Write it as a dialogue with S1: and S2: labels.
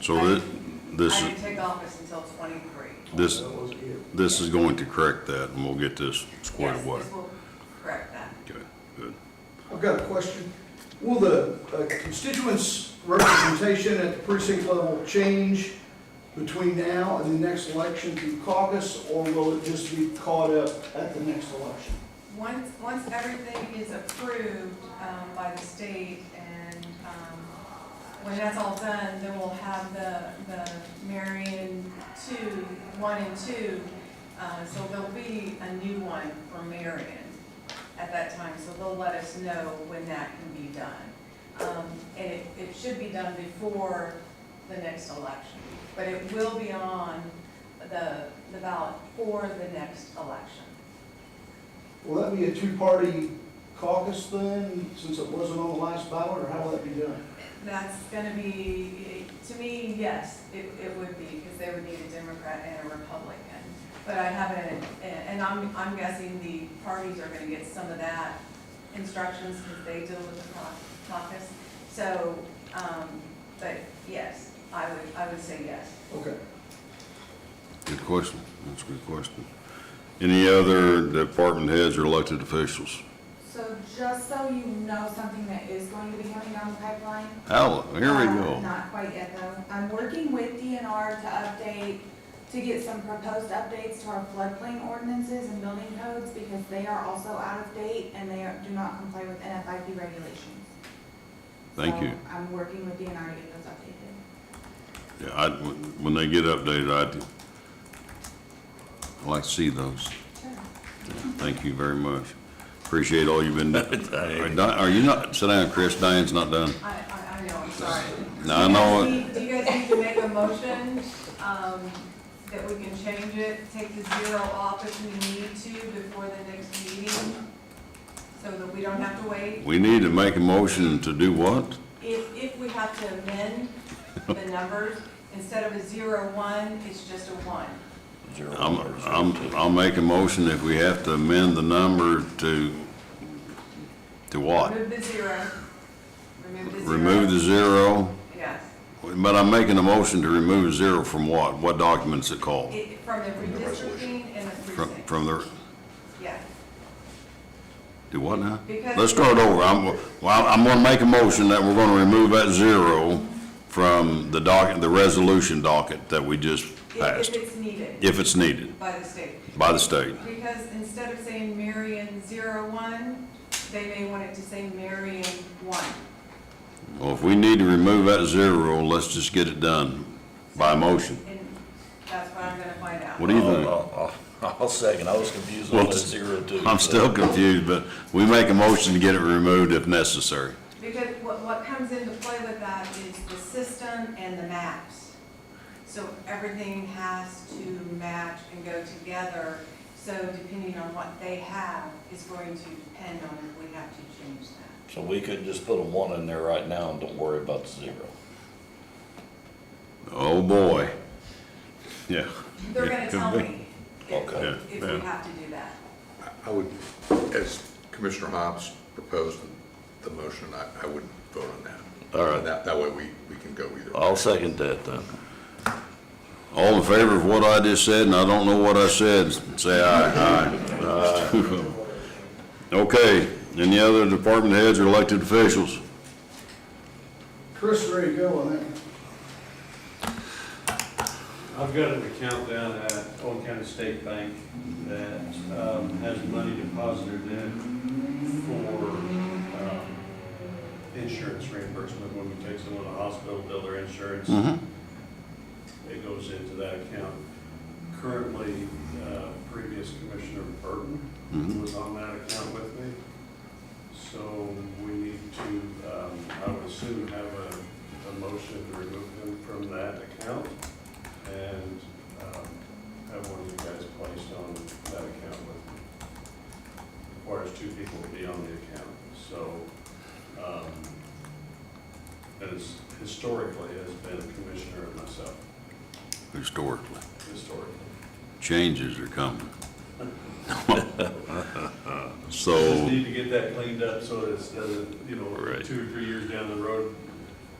S1: So that, this,
S2: I
S1: is-
S2: didn't take office until twenty-three.
S1: this,
S3: That was it.
S1: this is going to correct that, and we'll get this squared away.
S2: Yes, this will correct that.
S1: Okay, good.
S3: I've got a question. Will the uh, constituents' representation at the precinct level change between now and the next election through caucus, or will it just be caught up at the next election?
S2: Once, once everything is approved um, by the state and um, when that's all done, then we'll have the, the Marion two, one and two. Uh, So there'll be a new one for Marion at that time, so they'll let us know when that can be done. Um, And it, it should be done before the next election, but it will be on the, the ballot for the next election.
S3: Will that be a two-party caucus then, since it wasn't on the last ballot, or how will that be done?
S2: That's gonna be, to me, yes, it, it would be, because they would need a Democrat and a Republican. But I haven't, and and I'm, I'm guessing the parties are gonna get some of that instructions, because they deal with the cau- caucus. So, um, but yes, I would, I would say yes.
S3: Okay.
S1: Good question. That's a good question. Any other department heads or elected officials?
S4: So just so you know, something that is going to be coming down the pipeline.
S1: Al, here we
S4: uh,
S1: go.
S4: Not quite yet though. I'm working with DNR to update, to get some proposed updates to our floodplain ordinances and building codes because they are also out of date and they are- do not comply with NFIP regulations.
S1: Thank you.
S4: So I'm working with DNR to get those updated.
S1: Yeah, I, when when they get updated, I'd, I'd like to see those.
S4: Sure.
S1: Thank you very much. Appreciate all you've been doing. Are Di- Are you not, sit down, Chris, Diane's not done.
S2: I, I, I know, I'm sorry.
S1: No, I know
S2: Do
S1: it.
S2: you guys need- Do you guys need to make a motion, um, that we can change it, take the zero off if we need to before the next meeting? So that we don't have to wait,
S1: We need to make a motion to do what?
S2: if, if we have to amend the numbers, instead of a zero one, it's just a one.
S1: I'm, I'm, I'll make a motion if we have to amend the number to, to what?
S2: Remove the zero, remove the zero.
S1: Remove the zero,
S2: Yes,
S1: but I'm making a motion to remove zero from what? What document's it called?
S2: it, from the redistricting and the
S1: From,
S2: precinct,
S1: from the,
S2: yeah.
S1: do what now?
S2: Because-
S1: Let's start over. I'm, well, I'm gonna make a motion that we're gonna remove that zero from the docket, the resolution docket that we just
S2: If, if
S1: passed,
S2: it's needed
S1: if it's needed
S2: by the state.
S1: by the state.
S2: Because instead of saying Marion zero one, they may want it to say Marion one.
S1: Well, if we need to remove that zero, let's just get it done by motion.
S2: And that's what I'm gonna find out.
S1: What do you think?
S5: I'll- I'll I'll second, Oh, I was confused on
S1: Well,
S5: that zero two.
S1: I'm
S5: so-
S1: still confused, but we make a motion to get it removed if necessary.
S2: Because what, what comes into play with that is the system and the maps. So everything has to match and go together, so depending on what they have is going to depend on if we have to change that.
S5: So we could just put a one in there right now and don't worry about the zero.
S1: Oh, boy. Yeah.
S2: They're gonna tell me if,
S5: Okay.
S2: if we have to do that.
S6: I would, as Commissioner Hobbs proposed the motion, I, I would vote on that.
S5: All right.
S6: That, that way we, we can go either. way.
S5: I'll second that then.
S1: All in favor of what I just said, and I don't know what I said, say aye. Aye. Okay, any other department heads or elected officials?
S3: Chris, ready to go on that?
S7: I've got an account down at Old County State Bank that um, has money deposited in for um, insurance reimbursement. When we take someone to the hospital, bill their insurance,
S1: Mm-hmm.
S7: it goes into that account. Currently, uh, previous Commissioner Burton
S1: Mm-hmm.
S7: was on that account with me. So we need to, um, I would assume, have a, a motion to remove him from that account and um, have one of you guys placed on that account with me. Requires two people to be on the account, so, um, that is historically has been Commissioner and myself,
S1: Historically,
S7: historically.
S1: changes are coming.
S7: Just
S1: So,
S7: need to get that cleaned up so that it doesn't, you know,
S1: Right.
S7: two or three years down the road,